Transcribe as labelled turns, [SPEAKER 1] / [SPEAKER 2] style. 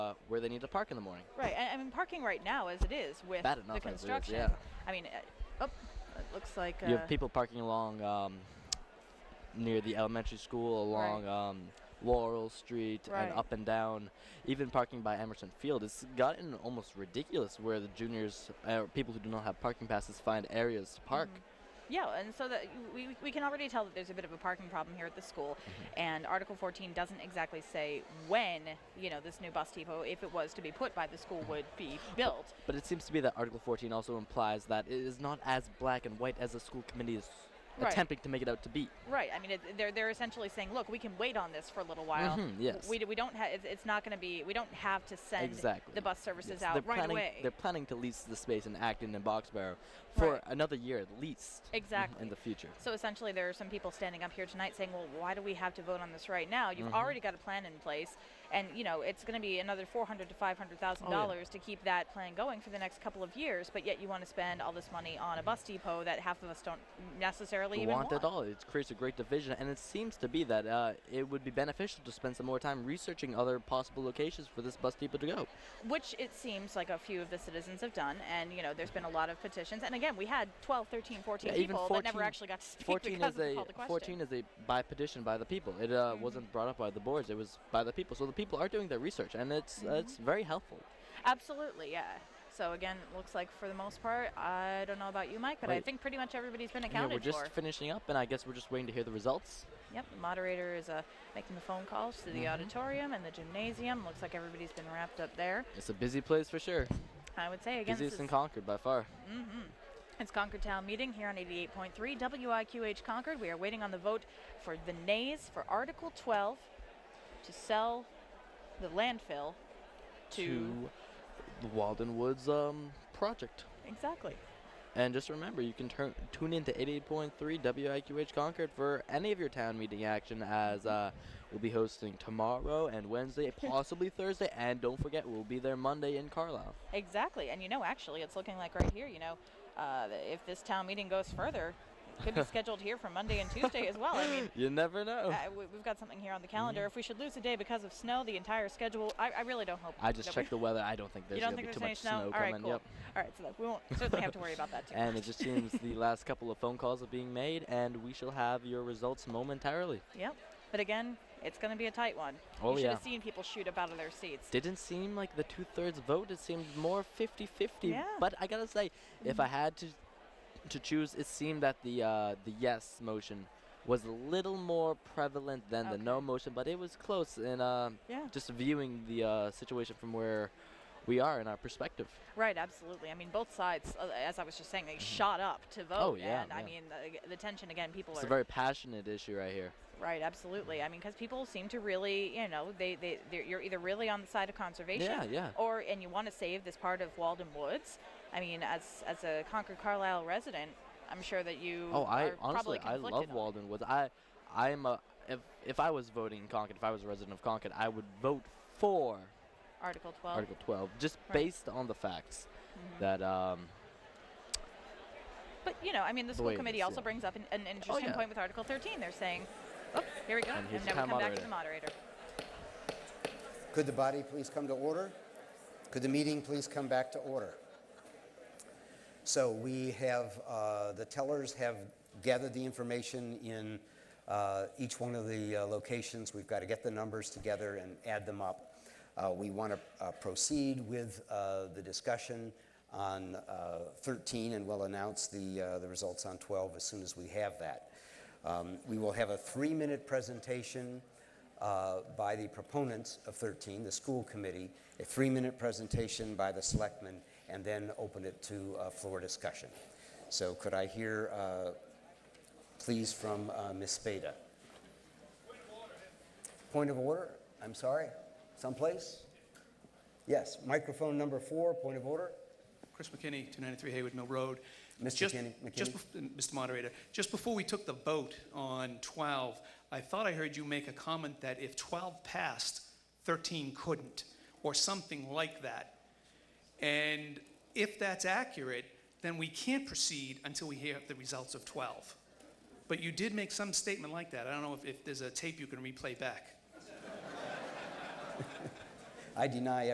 [SPEAKER 1] uh, where they need to park in the morning.
[SPEAKER 2] Right, and I mean parking right now as it is with
[SPEAKER 1] Bad
[SPEAKER 2] the
[SPEAKER 1] enough as it is,
[SPEAKER 2] construction.
[SPEAKER 1] yeah.
[SPEAKER 2] I mean, uh, oh, it looks like uh,
[SPEAKER 1] You have people parking along um, near the elementary school,
[SPEAKER 2] Right.
[SPEAKER 1] along um, Laurel Street,
[SPEAKER 2] Right.
[SPEAKER 1] and up and down. Even parking by Emerson Field. It's gotten almost ridiculous where the juniors, uh, people who do not have parking passes, find areas to park.
[SPEAKER 2] Mm-hmm. Yeah, and so that we, we can already tell that there's a bit of a parking problem here at the school,
[SPEAKER 1] Mm-hmm.
[SPEAKER 2] and Article 14 doesn't exactly say when you know this new bus depot, if it was to be put by the school, would be built.
[SPEAKER 1] But it seems to be that Article 14 also implies that it is not as black and white as the school committee is
[SPEAKER 2] Right.
[SPEAKER 1] attempting to make it out to be.
[SPEAKER 2] Right. I mean, it, they're they're essentially saying, look, we can wait on this for a little while.
[SPEAKER 1] Mhm, yes.
[SPEAKER 2] We, d- we don't have. It's, it's not going to be. We don't have to send
[SPEAKER 1] Exactly.
[SPEAKER 2] the bus services
[SPEAKER 1] Yes,
[SPEAKER 2] out
[SPEAKER 1] they're
[SPEAKER 2] right
[SPEAKER 1] planning,
[SPEAKER 2] away.
[SPEAKER 1] They're planning to lease the space in Acton and Boxborough for
[SPEAKER 2] Right.
[SPEAKER 1] another year at least. mhm,
[SPEAKER 2] Exactly.
[SPEAKER 1] In the future.
[SPEAKER 2] So essentially, there are some people standing up here tonight saying, "Well, why do we have to vote on this right now?
[SPEAKER 1] Mm-hmm.
[SPEAKER 2] You've already got a plan in place, and you know it's going to be another four hundred to five hundred thousand
[SPEAKER 1] Oh, yeah.
[SPEAKER 2] dollars to keep that plan going for the next couple of years. But yet you want to spend all this money on a bus depot that half of us don't necessarily even
[SPEAKER 1] want at all. It creates a great division, and it seems to be that uh, it would be beneficial to spend some more time researching other possible locations for this bus depot to go.
[SPEAKER 2] which it seems like a few of the citizens have done and you know there's been a lot of petitions and again we had 12 13 14
[SPEAKER 1] Yeah, even
[SPEAKER 2] people that never
[SPEAKER 1] 14
[SPEAKER 2] actually got to speak
[SPEAKER 1] 14
[SPEAKER 2] because
[SPEAKER 1] is
[SPEAKER 2] of the
[SPEAKER 1] a
[SPEAKER 2] call to question.
[SPEAKER 1] 14
[SPEAKER 2] Mm-hmm.
[SPEAKER 1] is a by petition by the people. It uh, wasn't brought up by the boards. It was by the people. So the people are doing their research, and it's
[SPEAKER 2] Mm-hmm.
[SPEAKER 1] uh, it's very helpful.
[SPEAKER 2] Absolutely, yeah. So again, it looks like for the most part, I don't know about you, Mike, but I
[SPEAKER 1] Wait.
[SPEAKER 2] think pretty much everybody's been
[SPEAKER 1] And yeah,
[SPEAKER 2] accounted
[SPEAKER 1] we're just
[SPEAKER 2] for.
[SPEAKER 1] finishing up, and I guess we're just waiting to hear the results.
[SPEAKER 2] Yep, the moderator is uh, making the phone calls to the
[SPEAKER 1] Mhm.
[SPEAKER 2] auditorium and the gymnasium. Looks like everybody's been wrapped up there.
[SPEAKER 1] It's a busy place for sure.
[SPEAKER 2] I would say again, this
[SPEAKER 1] Busiest
[SPEAKER 2] is,
[SPEAKER 1] in Concord by far.
[SPEAKER 2] it's Concord Town Meeting here on 88.3 WIQH Concord. We are waiting on the vote for the nays for Article 12 to sell the landfill to,
[SPEAKER 1] To the Walden Woods um, project.
[SPEAKER 2] exactly.
[SPEAKER 1] And just remember, you can turn, tune in to 88.3 WIQH Concord for any of your town meeting action as uh, we'll be hosting tomorrow and Wednesday, possibly Thursday, and don't forget, we'll be there Monday in Carlisle.
[SPEAKER 2] Exactly, and you know, actually, it's looking like right here. You know, uh, th- if this town meeting goes further, it could be scheduled here for Monday and Tuesday as well. I mean,
[SPEAKER 1] You never know.
[SPEAKER 2] uh, we, we've got something here on the
[SPEAKER 1] Mm-hmm.
[SPEAKER 2] calendar. If we should lose a day because of snow, the entire schedule. I, I really don't hope.
[SPEAKER 1] I just
[SPEAKER 2] that we-
[SPEAKER 1] checked the weather. I don't think there's
[SPEAKER 2] You don't
[SPEAKER 1] going to
[SPEAKER 2] think
[SPEAKER 1] be
[SPEAKER 2] there's
[SPEAKER 1] too
[SPEAKER 2] any
[SPEAKER 1] much snow
[SPEAKER 2] All right,
[SPEAKER 1] coming.
[SPEAKER 2] cool.
[SPEAKER 1] Yep.
[SPEAKER 2] All right, so that- we won't certainly have to worry about that too.
[SPEAKER 1] And it just seems the last couple of phone calls are being made, and we shall have your results momentarily.
[SPEAKER 2] Yep. But again, it's going to be a tight one.
[SPEAKER 1] Oh,
[SPEAKER 2] you should
[SPEAKER 1] yeah.
[SPEAKER 2] have seen people shoot up out of their seats.
[SPEAKER 1] Didn't seem like the two thirds vote. It seemed more 50 50.
[SPEAKER 2] Yeah. Mm-hmm.
[SPEAKER 1] But I gotta say, if I had to to choose, it seemed that the uh, the yes motion was a little more prevalent than the no
[SPEAKER 2] Okay.
[SPEAKER 1] motion, but it was close in uh,
[SPEAKER 2] Yeah.
[SPEAKER 1] just viewing the uh, situation from where we are in our perspective.
[SPEAKER 2] Right, absolutely. I mean, both sides, uh, as I was just saying, they shot up to vote.
[SPEAKER 1] Oh, yeah,
[SPEAKER 2] And I
[SPEAKER 1] yeah.
[SPEAKER 2] mean, the, the tension again, people
[SPEAKER 1] It's
[SPEAKER 2] are
[SPEAKER 1] a very passionate issue right here.
[SPEAKER 2] Right, absolutely. I mean, because people seem to really, you know, they, they they're, you're either really on the side of conservation,
[SPEAKER 1] Yeah, yeah.
[SPEAKER 2] or and you want to save this part of Walden Woods. I mean, as as a Concord Carlisle resident, I'm sure that you
[SPEAKER 1] Oh, I
[SPEAKER 2] are
[SPEAKER 1] honestly
[SPEAKER 2] probably
[SPEAKER 1] I
[SPEAKER 2] conflicted
[SPEAKER 1] love
[SPEAKER 2] on it.
[SPEAKER 1] Walden Woods. I I'm a if if I was voting in Concord, if I was a resident of Concord, I would vote for
[SPEAKER 2] Article 12.
[SPEAKER 1] Article 12, just
[SPEAKER 2] Right.
[SPEAKER 1] based on the facts that um,
[SPEAKER 2] But you know, I mean, the school
[SPEAKER 1] way it
[SPEAKER 2] committee
[SPEAKER 1] is,
[SPEAKER 2] also
[SPEAKER 1] yeah. Oh,
[SPEAKER 2] brings up an, an interesting
[SPEAKER 1] yeah.
[SPEAKER 2] point with Article 13. They're saying, oh, here we go,
[SPEAKER 1] And
[SPEAKER 2] and,
[SPEAKER 1] here's the
[SPEAKER 2] then we come
[SPEAKER 1] town
[SPEAKER 2] back to the moderator.
[SPEAKER 3] Could the body please come to order? Could the meeting please come back to order? So we have, uh, the tellers have gathered the information in uh, each one of the uh, locations. We've got to get the numbers together and add them up. Uh, We want to proceed with uh, the discussion on uh, 13, and we'll announce the uh, the results on 12 as soon as we have that. Um, We will have a three-minute presentation uh, by the proponents of 13, the school committee, a three-minute presentation by the selectmen, and then open it to uh, floor discussion. So could I hear, uh, please, from uh, Ms. Spada? Point of order? I'm sorry? Someplace? Yes, microphone number four, point of order?
[SPEAKER 4] Chris McKinney, 293 Haywood Mill Road.
[SPEAKER 3] Mr.
[SPEAKER 4] Just-
[SPEAKER 3] Kenny- McKinney?
[SPEAKER 4] Just, bef- Mr. Moderator, just before we took the vote on 12, I thought I heard you make a comment that if 12 passed, 13 couldn't, or something like that. And if that's accurate, then we can't proceed until we hear the results of 12. But you did make some statement like that. I don't know if- if there's a tape you can replay back.
[SPEAKER 3] I deny